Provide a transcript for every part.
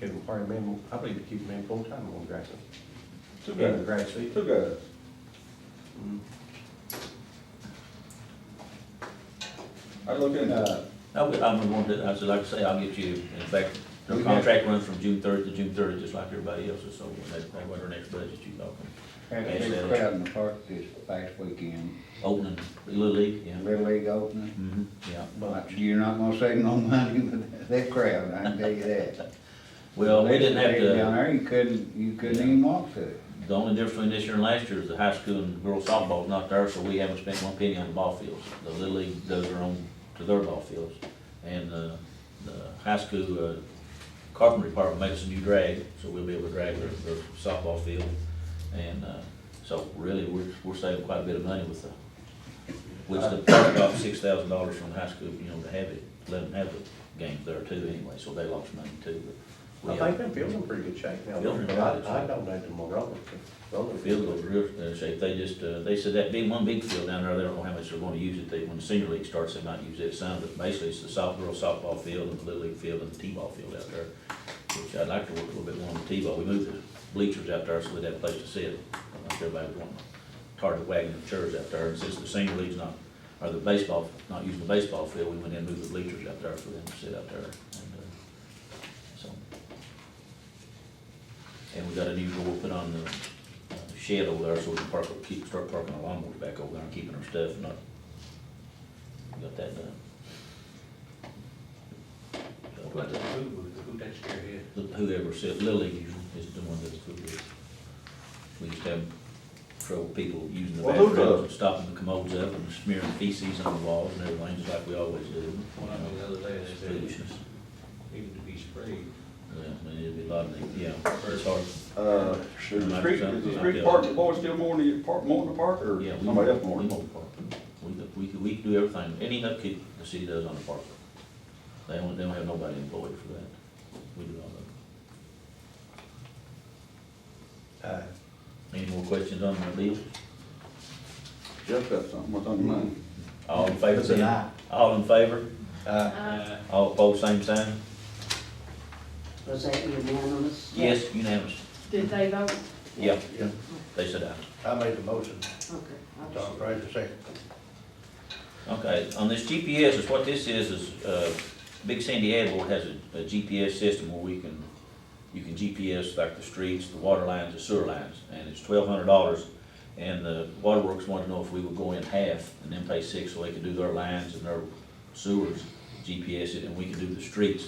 It require a man, I believe to keep a man full-time on Jackson, Two in the guys, grass seed. two guys. Mm. I look into it. Uh, I would, I'm gonna want to, I said, like I say, I'll get you, in fact, We the have- contract runs from June third to June thirtieth, just like everybody else's, so when they, they want their next budget, you know, Had a big crowd in the park this past weekend, opening, Little League, yeah. Little League opening. Mm-hmm, yeah. But You're not gonna save no money with that crowd, I can tell you that. Well, we didn't have Down to, there, you couldn't, you couldn't even walk through it. the only difference between this year and last year is the high school and girls softball's not there, so we haven't spent one penny on the ball fields. The Little League does their own, to their ball fields, and, uh, the high school, uh, carpentry department makes a new drag, so we'll be able to drag their, their softball field. And, uh, so really, we're, we're saving quite a bit of money with the, which the park got six thousand dollars from the high school, you know, to have it, let them have the games there too anyway, so they lost money too, but. I we- think that building's in pretty good shape now. Building's in I, good I shape. donated to Morella, Morella. Field goes real uh, shape, they just, uh, they said that big, one big field down there, they don't know how much they're gonna use it, they, when the senior league starts, they might use that some, but basically it's the soft, girl softball field and the little league field and the T-ball field out there, which I'd like to work a little bit more on the T-ball, we moved the bleachers out there so we'd have a place to sit, I think everybody would want a target wagon and chairs out there, and since the senior league's not, or the baseball, not using the baseball field, we went in and moved the bleachers out there for them to sit out there, and, uh, so. And we got a new door put on the uh, shed over there, so we can park, keep, start parking our lawnmowers back over there and keeping our stuff, and not, we got that done. What about the food booth, who takes care of it? Whoever said, Lily usually is the one that's good with, we just have trouble people using the Well, who bathrooms, does? and stopping the commodes up and smearing feces on the walls and everything, just like we always do. Well, I know the other day, It's they said it foolishness, needed to be sprayed. yeah, I mean, it'd be a lot of, yeah, it's hard, Uh, should the street, is the street park, boy, still more in the park, more in the park, or yeah. we- somebody else more? We mow the park, we, we, could- we can do everything, any upkeep the city does on the park, they don't, they don't have nobody employed for that, we do all that. Uh, Any more questions on the bill? Jeff got something, what's on your mind? Mm-hmm. All in favor, It's an say aye. aye. All in favor? uh, Uh, All opposed, same sign? Was that unanimous? Yes, unanimous. Did they vote? Yeah, Yeah. they said aye. I made the motion, Okay. I'll just- Tom Fraser second. Okay, on this GPS, is what this is, is, uh, Big Sandy Airport has a, a GPS system where we can, you can GPS like the streets, the water lines, the sewer lines, and it's twelve hundred dollars. And the waterworks wanted to know if we would go in half and then pay six so they could do their lines and their sewers, GPS it, and we could do the streets.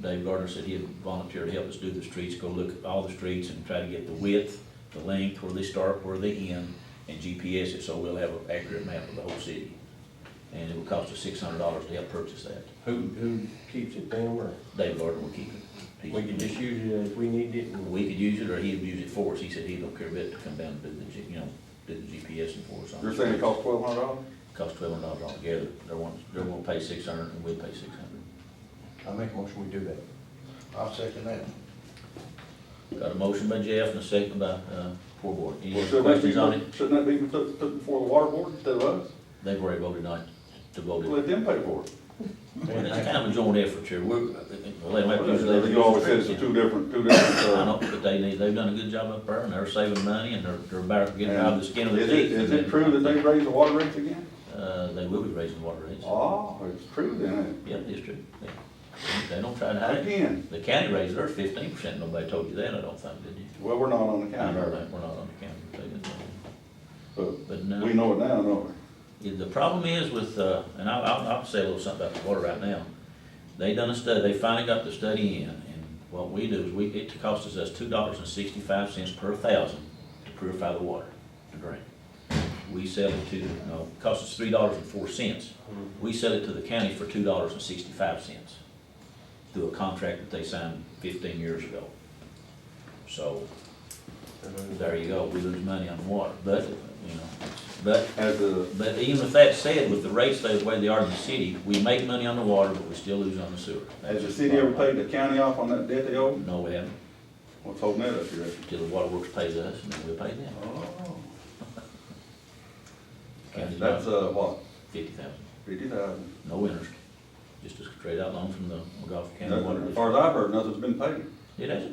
Dave Gardner said he'd volunteer to help us do the streets, go look at all the streets and try to get the width, the length, where they start, where they end, and GPS it, so we'll have an accurate map of the whole city. And it will cost us six hundred dollars to help purchase that. who, who keeps it down where? Dave Gardner will keep it. He's- We can just use it if we need it and We could use it, or he'd use it for us, he said he don't care a bit to come down and do the, G- you know, do the GPS and for us. on You're the saying it streets. costs twelve hundred dollars? Cost twelve hundred dollars altogether, they're wanting, they're gonna pay six hundred, and we'll pay six hundred. I make a motion we do that. I'll second that. Got a motion by Jeff and a second by, uh, poor board. Any other Shouldn't that be, questions on it? shouldn't that be put, put before the water board instead of us? They've already voted not to vote it. Let them pay for it. Well, It's kind of a joint effort here, we're, uh, well, they might use it. You always says it's two different, two different, I know, uh, but they, they- they've done a good job up there, and they're saving money, and they're, they're about getting out of the skin of the is teeth. it, is it true that they raised the water rates again? Uh, they will be raising water rates. Oh, it's true then. Yeah, it's true. They- They don't try to hide it. Again, The county raised theirs fifteen percent, nobody told you that, I don't think, did you? well, we're not on the I county, know are that, we're not on the county, so you know. we? but but we no. know it now, don't we? Yeah, The problem is with, uh, and I'll, I'll, I'll say a little something about the water right now. They done a study, they finally got the study in, and what we do is we, it costs us two dollars and sixty-five cents per thousand to purify the water, to drink. We sell it to, no, it costs us three dollars and four cents. We sell it to the county for two dollars and sixty-five cents through a contract that they signed fifteen years ago. So, there you go, we lose money on water, but, you know, but As a, but even with that said, with the rates the way they are in the city, we make money on the water, but we still lose on the sewer. has the city ever paid the county off on that debt they owe? No, we haven't, What's holding that up here? till the water works pays us, and then we'll pay them. Oh. County's That's, about uh, what, fifty thousand, fifty thousand? no interest, just a straight out loan from the Gulf County Water. As far as I've heard, nothing's been paid. District. It hasn't